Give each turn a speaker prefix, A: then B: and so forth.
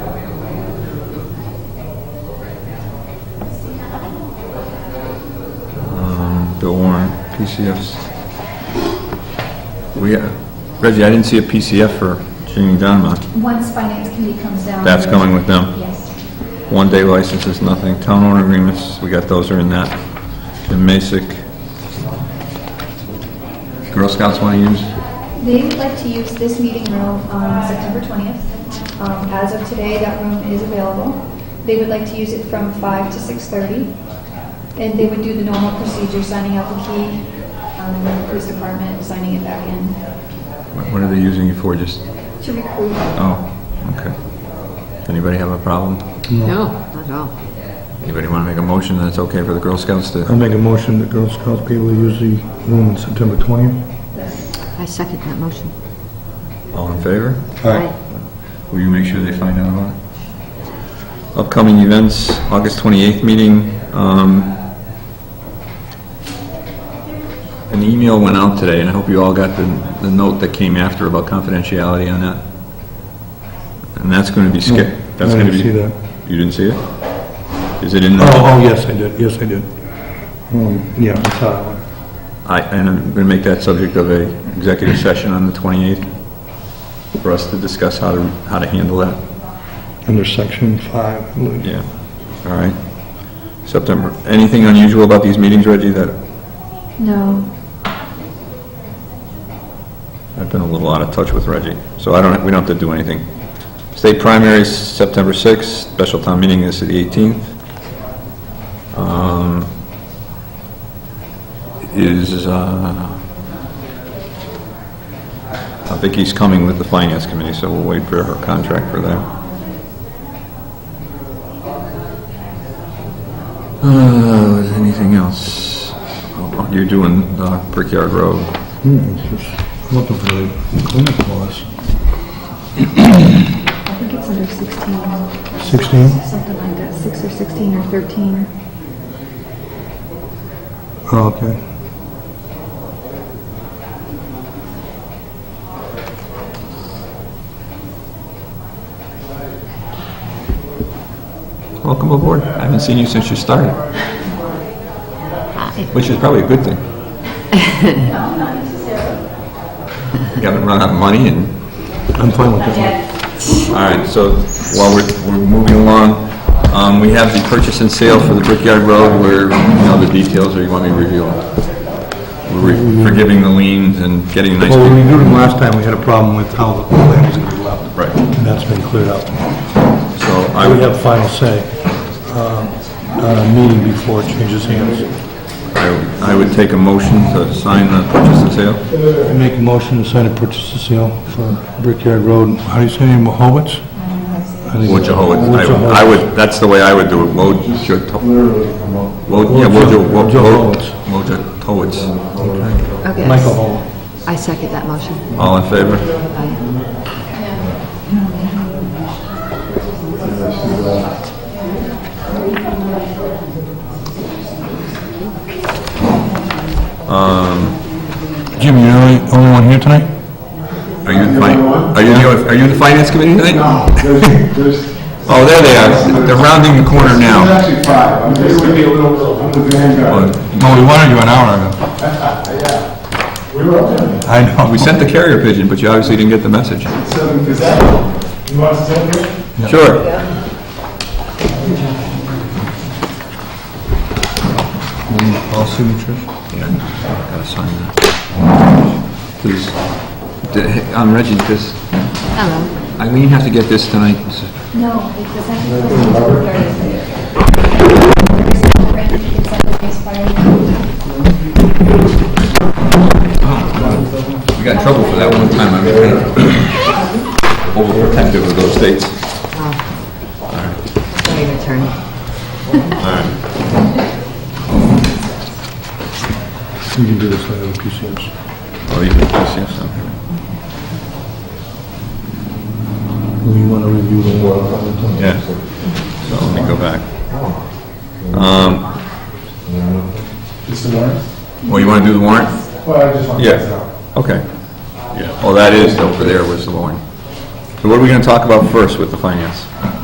A: PCFs. We, uh, Reggie, I didn't see a PCF for Jeanne Donmont.
B: Once finance committee comes down.
A: That's going with them.
B: Yes.
A: One-day licenses, nothing. Town owner agreements, we got those are in that. And Masick. Girl Scouts want to use?
B: They would like to use this meeting room on September 20th. Um, As of today, that room is available. They would like to use it from 5 to 6:30. And they would do the normal procedure, signing out the key, um, the police department, signing it back in
A: What what are they using it for, just,
B: to recruit.
A: oh, okay. Anybody have a problem?
C: No, not at all.
A: Anybody want to make a motion that it's okay for the Girl Scouts
D: I'll
A: to?
D: make a motion that Girl Scouts people use the room on September 20th.
C: I second that motion.
A: All in favor?
C: Aye.
A: Will you make sure they find out about it? Upcoming events, August 28th meeting. um, An email went out today, and I hope you all got the, the note that came after about confidentiality on that. And that's going to be skipped. That's
D: I
A: going to be.
D: didn't see that.
A: You didn't see it? Is it in the?
D: Oh, oh, yes, I did, yes, I did. Um, Yeah, I saw that one.
A: I, and I'm going to make that subject of a executive session on the 28th for us to discuss how to, how to handle that.
D: under section 5. I believe.
A: Yeah, all right. September, anything unusual about these meetings, Reggie, that
B: No.
A: I've been a little out of touch with Reggie, so I don't, we don't have to do anything. State primaries, September 6th, special town meeting is the 18th. Um, Is, uh, I think he's coming with the finance committee, so we'll wait for her contract for that. Uh, is anything else? Oh, You're doing uh, Brickyard Road.
D: Hmm, it's just looking for the cleanup clause.
B: I think it's under 16,
D: 16?
B: something like that, 6 or 16 or 13.
D: Oh, okay.
A: Welcome aboard. I haven't seen you since you started. Which is probably a good thing. You haven't run out of money and,
D: I'm fine with that.
A: all right, so while we're, we're moving along, um, we have the purchase and sale for the Brickyard Road where, you know, the details, or you want me to review them? We're re- forgiving the liens and getting a nice.
D: Well, when we did it last time, we had a problem with how the land was going to be left.
A: Right,
D: And that's been cleared up.
A: so I
D: I would
A: would,
D: have final say um, on a meeting before it changes hands.
A: I would- I would take a motion to sign the purchase and sale.
D: I make a motion to sign a purchase and sale for Brickyard Road, how do you say, it? Mohowitz? I think-
A: Wojciechowicz,
D: Wojciechowicz.
A: I I would, that's the way I would do it, Wojciechowicz. Well, yeah, Wojo, Wo-
D: Wojo
A: Wo-
D: Howitz.
A: Wojo Howitz.
C: Okay.
D: Michael Howell.
C: I second that motion.
A: All in favor?
C: Aye.
D: Jim, you're the only one here tonight?
A: Are you, in fi- are you, the- are you in the finance committee tonight?
E: No, there's, there's.
A: Oh, there they are, they're rounding the corner
E: There's
A: now.
E: actually five. I'm just gonna be a little, I'm the vanguard.
D: No, we wanted you an hour ago.
E: We were up there.
D: I know.
A: We sent the carrier pigeon, but you obviously didn't get the message.
E: Seven, is that, you want to stand here?
A: Sure.
D: All signatures?
A: Yeah, gotta sign that. Please, D- um, Reggie, does
C: Hello.
A: Eileen have to get this tonight?
B: No, it doesn't. It's expired.
A: We got in trouble for that one time, I'm kind of overprotective of those dates.
C: Sorry, your turn.
D: You can do this later, the PCS.
A: Oh, you can just, yes, I'm-
D: We want to review the law.
A: Yeah, so let me go back.
E: It's the warrant?
A: Oh, you want to do the warrant?
E: Well, I just want to.
A: Yeah. Okay. Yeah. Oh, that is over there was the warrant. So what are we going to talk about first with the finance?